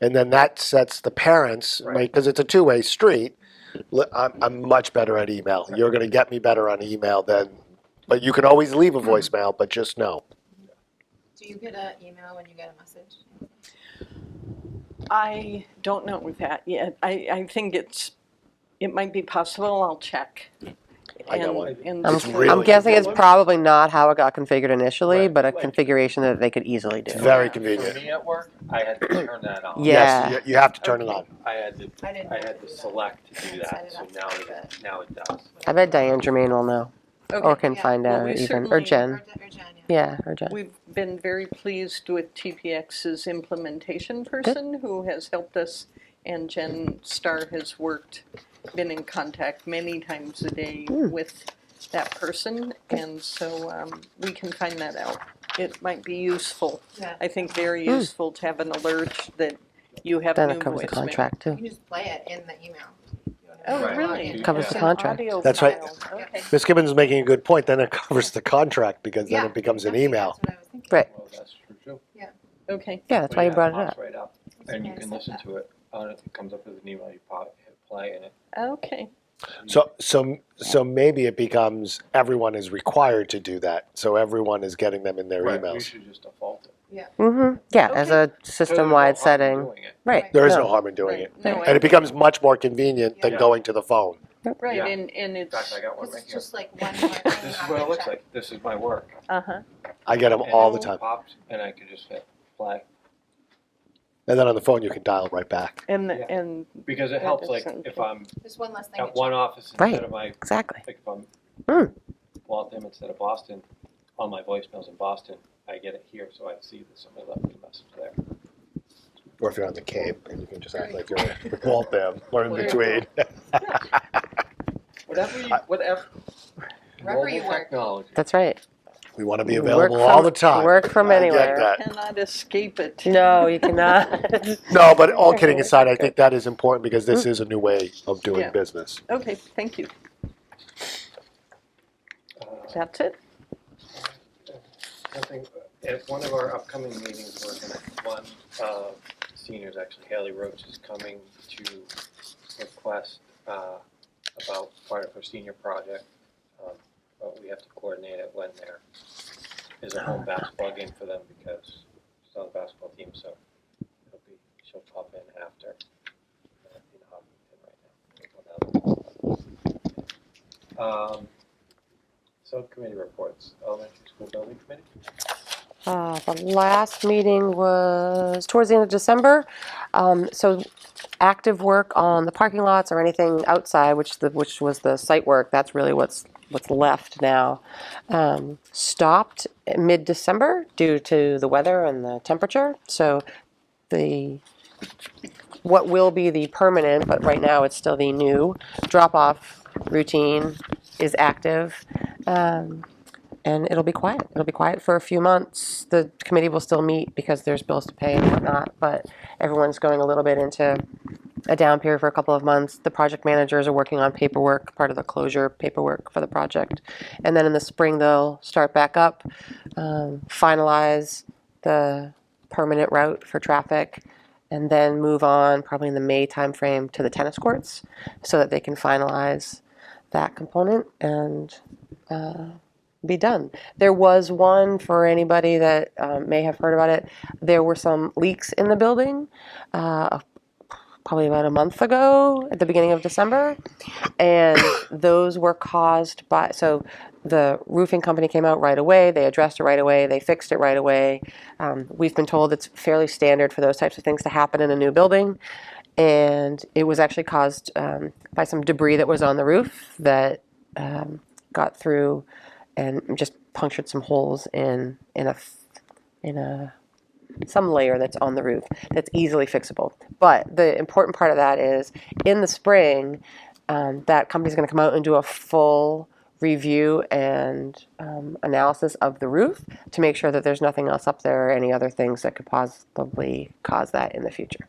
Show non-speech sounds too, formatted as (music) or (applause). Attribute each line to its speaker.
Speaker 1: And then that sets the parents,
Speaker 2: Right.
Speaker 1: right, because it's a two-way street. Li- I'm, I'm much better at email. You're gonna get me better on email than, but you can always leave a voicemail, but just know.
Speaker 3: Do you get an email when you get a message?
Speaker 2: I don't know with that yet. I, I think it's, it might be possible, I'll check.
Speaker 1: I got
Speaker 2: And-
Speaker 1: one.
Speaker 2: and
Speaker 4: I'm,
Speaker 1: It's
Speaker 2: see.
Speaker 1: really
Speaker 4: I'm guessing it's
Speaker 1: convenient.
Speaker 4: probably not how it got configured initially,
Speaker 1: Right.
Speaker 4: but a configuration that they could easily
Speaker 1: It's
Speaker 4: do.
Speaker 1: very
Speaker 5: For
Speaker 1: convenient.
Speaker 5: me at work, I had to turn that on.
Speaker 4: Yeah.
Speaker 1: Yes, you- you have to turn it on.
Speaker 5: I had to,
Speaker 3: I didn't.
Speaker 5: I had
Speaker 3: know to
Speaker 5: to
Speaker 3: do that.
Speaker 5: select to do
Speaker 3: Set
Speaker 5: that,
Speaker 3: it
Speaker 5: so
Speaker 3: up
Speaker 5: now
Speaker 3: to do
Speaker 5: it, now it does.
Speaker 4: I bet Diane Germain will know or
Speaker 2: Okay.
Speaker 4: can
Speaker 3: Yeah,
Speaker 4: find
Speaker 2: well,
Speaker 4: out
Speaker 2: we
Speaker 4: even, or
Speaker 2: certainly-
Speaker 4: Jen.
Speaker 3: Or Jen- or Jen, yeah.
Speaker 4: Yeah, or Jen.
Speaker 2: We've been very pleased with TPX's implementation person who has helped us, and Jen Starr has worked, been in contact many times a day
Speaker 4: Hmm.
Speaker 2: with that person, and so um, we can find that out. It might be useful.
Speaker 3: Yeah.
Speaker 2: I think very useful to have an alert that you have
Speaker 4: Hmm. Then
Speaker 2: new
Speaker 4: it covers the
Speaker 2: voicemail.
Speaker 4: contract
Speaker 3: You
Speaker 4: too.
Speaker 3: can just play it in the email.
Speaker 2: Oh,
Speaker 5: Right.
Speaker 2: really?
Speaker 4: Covers
Speaker 2: It's
Speaker 4: the
Speaker 2: an
Speaker 4: contract.
Speaker 2: audio
Speaker 1: That's right.
Speaker 2: file. Okay.
Speaker 1: Ms. Gibbons is making a good point, then it (laughs) covers the contract because then
Speaker 3: Yeah,
Speaker 1: it becomes an
Speaker 3: Okay,
Speaker 1: email.
Speaker 3: That's what I was thinking.
Speaker 4: Right.
Speaker 5: Well, that's true too.
Speaker 2: Okay,
Speaker 4: Yeah, that's
Speaker 5: But
Speaker 4: why you
Speaker 5: yeah,
Speaker 4: brought it
Speaker 5: pops
Speaker 4: up.
Speaker 5: right up,
Speaker 3: I'm
Speaker 5: and you
Speaker 3: surprised
Speaker 5: can
Speaker 3: at
Speaker 5: listen
Speaker 3: that.
Speaker 5: to it, on it it comes up as an email, you pop, hit play, and it.
Speaker 2: okay.
Speaker 1: So, so, so maybe it becomes everyone is required to do that. So everyone is getting them in their
Speaker 5: Right, We
Speaker 1: emails.
Speaker 5: should just default it.
Speaker 4: hmm yeah,
Speaker 5: So there's
Speaker 4: as a
Speaker 5: no harm in
Speaker 4: system-wide setting,
Speaker 5: doing it.
Speaker 4: right.
Speaker 1: There is no harm in doing
Speaker 2: Right.
Speaker 1: it.
Speaker 2: No,
Speaker 1: And
Speaker 2: I-
Speaker 1: it becomes much more convenient than
Speaker 5: Yeah.
Speaker 1: going to the phone.
Speaker 2: Right,
Speaker 5: Yeah.
Speaker 2: and, and
Speaker 5: In fact,
Speaker 2: it's,
Speaker 5: I got one
Speaker 3: This
Speaker 5: right
Speaker 3: is
Speaker 5: here.
Speaker 3: just like one more thing.
Speaker 5: This is
Speaker 3: on
Speaker 5: what
Speaker 3: the
Speaker 5: it looks
Speaker 3: check.
Speaker 5: like, this is my work.
Speaker 2: uh-huh,
Speaker 1: I get them
Speaker 5: And
Speaker 1: all the
Speaker 5: it
Speaker 1: time.
Speaker 5: Pops, and I could just hit play,
Speaker 1: And then on the phone, you can dial right back.
Speaker 2: and, the-
Speaker 5: Yeah.
Speaker 2: and,
Speaker 5: because it
Speaker 2: Yeah,
Speaker 5: helps,
Speaker 2: that's
Speaker 5: like,
Speaker 2: something.
Speaker 5: if I'm
Speaker 3: There's one less thing.
Speaker 5: at
Speaker 3: to check.
Speaker 5: one office
Speaker 4: Right.
Speaker 5: instead of my
Speaker 4: Exactly.
Speaker 5: Like if I'm
Speaker 4: Hmm.
Speaker 5: Waltham instead of Boston, on my voicemails in Boston, I get it here, so I see that somebody left me a message there.
Speaker 1: Or if you're on the Cape, and you can just act like you're in Waltham or in
Speaker 5: Well,
Speaker 1: between.
Speaker 5: Whatever you, whatever.
Speaker 3: Wherever you
Speaker 5: mobile
Speaker 3: work.
Speaker 5: Technology.
Speaker 4: That's right.
Speaker 1: We want to be
Speaker 4: Work
Speaker 1: available all
Speaker 4: from-
Speaker 1: the time.
Speaker 4: work from
Speaker 1: I get
Speaker 4: anywhere.
Speaker 1: that.
Speaker 2: cannot escape it.
Speaker 4: No, (laughs) you cannot.
Speaker 1: No, but all kidding aside, I think that is important because this
Speaker 4: Mm.
Speaker 1: is a new way of doing
Speaker 2: Yeah.
Speaker 1: business.
Speaker 2: (laughs) Okay, thank you.
Speaker 5: Uh,
Speaker 2: That's it?
Speaker 5: I think at one of our upcoming meetings, we're gonna, one, uh, seniors, actually Haley Roach is coming to request, uh, about part of her senior project. Um, But we have to coordinate it when there is a home basketball game for them because she's on the basketball team, so it'll be, she'll pop in after. uh, in Hopkinton right now. Um, Subcommittee reports, elementary school building committee?
Speaker 4: Uh, The last meeting was towards the end of December. Um, So active work on the parking lots or anything outside, which the, which was the site work, that's really what's, what's left now. Um, Stopped mid-December due to the weather and the temperature. So the, what will be the permanent, but right now it's still the new drop-off routine is active. Um, and it'll be quiet. It'll be quiet for a few months. The committee will still meet because there's bills to pay and whatnot, but everyone's going a little bit into a down period for a couple of months. The project managers are working on paperwork, part of the closure paperwork for the project. And then in the spring, they'll start back up, um, finalize the permanent route for traffic, and then move on probably in the May timeframe to the tennis courts so that they can finalize that component and be done. There was one for anybody that um, may have heard about it. There were some leaks in the building, uh, probably about a month ago at the beginning of December, and (coughs) those were caused by so the roofing company came out right away. They addressed it right away. They fixed it right away. Um, we've been told it's fairly standard for those types of things to happen in a new building and it was actually caused um, by some debris that was on the roof that um, got through and just punctured some holes in in a f- in a some layer that's on the roof that's easily fixable. But the important part of that is in the spring, um, that company's going to come out and do a full review and um, analysis of the roof to make sure that there's nothing else up there or any other things that could possibly cause that in the future.